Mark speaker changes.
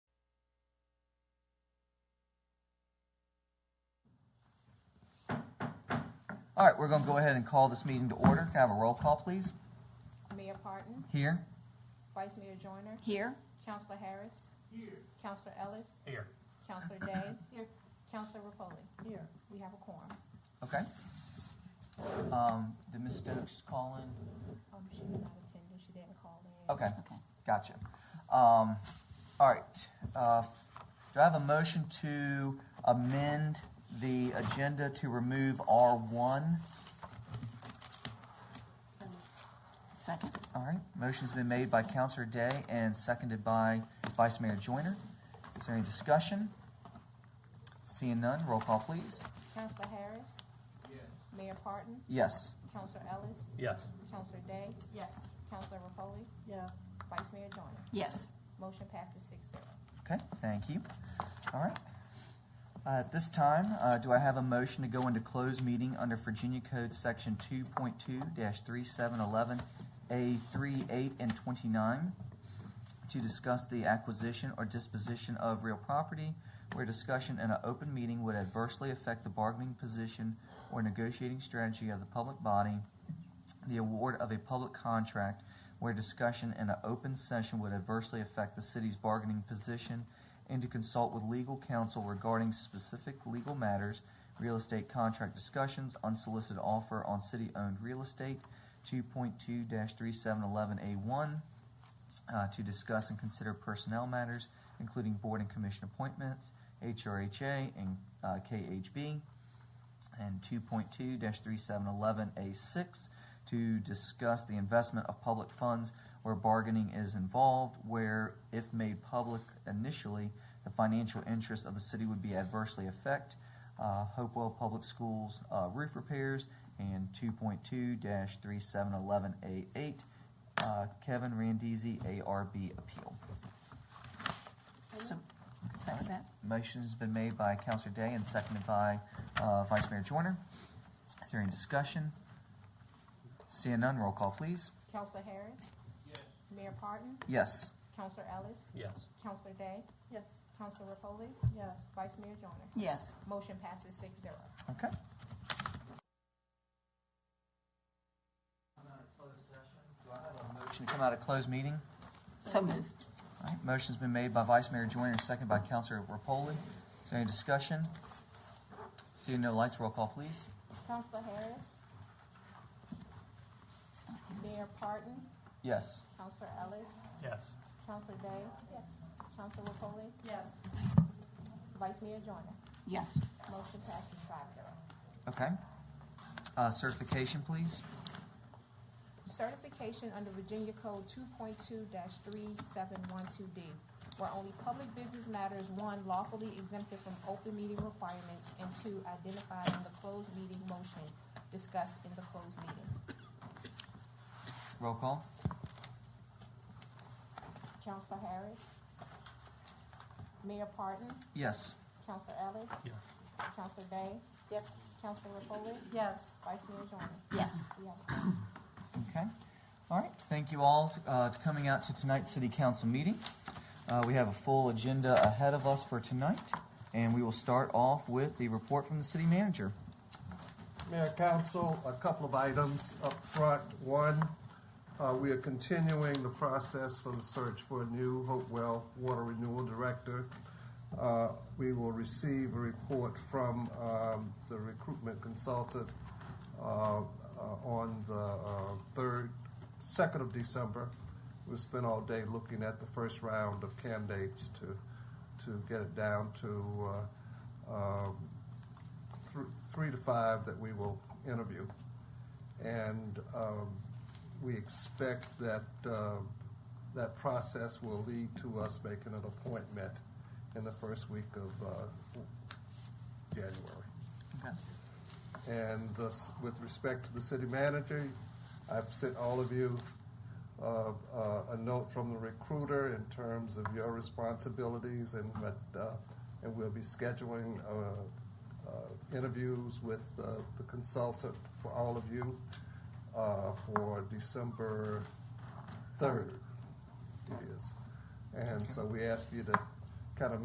Speaker 1: All right, we're going to go ahead and call this meeting to order. Can I have a roll call, please?
Speaker 2: Mayor Parton,
Speaker 1: Here.
Speaker 2: Vice Mayor Joyner,
Speaker 3: Here?
Speaker 2: Counselor Harris. Here. Counselor Ellis. Here. Counselor Day. Here. Counselor Repoli. Here. We have a quorum.
Speaker 1: Okay. Um, did Ms. Stokes call in?
Speaker 2: Um, she's not attending, she didn't call in.
Speaker 1: Okay,
Speaker 3: Okay.
Speaker 1: gotcha. Um, all right. Uh, do I have a motion to amend the agenda to remove R1?
Speaker 3: Second?
Speaker 1: All right, motion's been made by Counselor Day and seconded by Vice Mayor Joyner. Is there any discussion? Seeing none, roll call, please.
Speaker 2: Counselor Harris. Yes. Mayor Parton,
Speaker 1: Yes.
Speaker 2: Counselor Ellis,
Speaker 4: Yes.
Speaker 2: Counselor Day. Yes. Counselor Repoli. Yes. Vice Mayor Joyner.
Speaker 3: Yes.
Speaker 2: Motion passes six zero.
Speaker 1: Okay, thank you. All right. Uh, At this time, uh, do I have a motion to go into closed meeting under Virginia Code Section 2.2-3711A38 and 29 to discuss the acquisition or disposition of real property where discussion in an open meeting would adversely affect the bargaining position or negotiating strategy of the public body, the award of a public contract where discussion in an open session would adversely affect the city's bargaining position, and to consult with legal counsel regarding specific legal matters, real estate contract discussions, unsolicited offer on city-owned real estate, 2.2-3711A1, uh, to discuss and consider personnel matters, including board and commission appointments, HRHA and uh, KHB, and 2.2-3711A6 to discuss the investment of public funds where bargaining is involved, where if made public initially, the financial interests of the city would be adversely affect uh, Hopewell Public Schools uh, roof repairs, and 2.2-3711A8 uh, Kevin Randizzi ARB appeal.
Speaker 3: So, second that?
Speaker 1: Motion's been made by Counselor Day and seconded by uh, Vice Mayor Joyner. Is there any discussion? Seeing none, roll call, please.
Speaker 2: Counselor Harris. Yes. Mayor Parton,
Speaker 1: Yes.
Speaker 2: Counselor Ellis,
Speaker 4: Yes.
Speaker 2: Counselor Day,
Speaker 5: Yes.
Speaker 2: Counselor Repoli. Yes. Vice Mayor Joyner.
Speaker 3: Yes.
Speaker 2: Motion passes six zero.
Speaker 1: Okay. Motion to come out of closed meeting.
Speaker 3: So moved.
Speaker 1: All right, motion's been made by Vice Mayor Joyner and seconded by Counselor Repoli. Is there any discussion? Seeing no lights, roll call, please.
Speaker 2: Counselor Harris,
Speaker 3: It's not here.
Speaker 2: Mayor Parton,
Speaker 1: Yes.
Speaker 2: Counselor Ellis,
Speaker 4: Yes.
Speaker 2: Counselor Day. Yes. Counselor Repoli,
Speaker 5: Yes.
Speaker 2: Vice Mayor Joyner.
Speaker 3: Yes.
Speaker 2: Motion passes five zero.
Speaker 1: Okay. Uh, Certification, please.
Speaker 2: Certification under Virginia Code two point two three seven one two D, where only public business matters, one, lawfully exempted from open meeting requirements, and two, identified in the closed meeting motion discussed in the closed meeting.
Speaker 1: Roll call.
Speaker 2: Counselor Harris, Mayor Parton,
Speaker 1: Yes.
Speaker 2: Counselor Ellis,
Speaker 4: Yes.
Speaker 2: Counselor Day. Yes. Counselor Repoli,
Speaker 5: Yes.
Speaker 2: Vice Mayor Joyner.
Speaker 3: Yes.
Speaker 2: We have a
Speaker 1: Okay. All right. Thank you all uh, to coming out to tonight's city council meeting. Uh, we have a full agenda ahead of us for tonight, and we will start off with the report from the city manager.
Speaker 6: Mayor, council, a couple of items up front. One, uh, we are continuing the process for the search for a new Hopewell Water Renewal Director. Uh, We will receive a report from um, the recruitment consultant uh, uh, on the uh, third, second of December. We spent all day looking at the first round of candidates to, to get it down to uh, um, thr- three to five that we will interview. And um, we expect that uh, that process will lead to us making an appointment in the first week of uh, January.
Speaker 1: Okay.
Speaker 6: And thus, with respect to the city manager, I've sent all of you uh, uh, a note from the recruiter in terms of your responsibilities and what, uh, and we'll be scheduling uh, uh, interviews with uh, the consultant for all of you uh, for December 3rd. It is. And so we ask you to kind of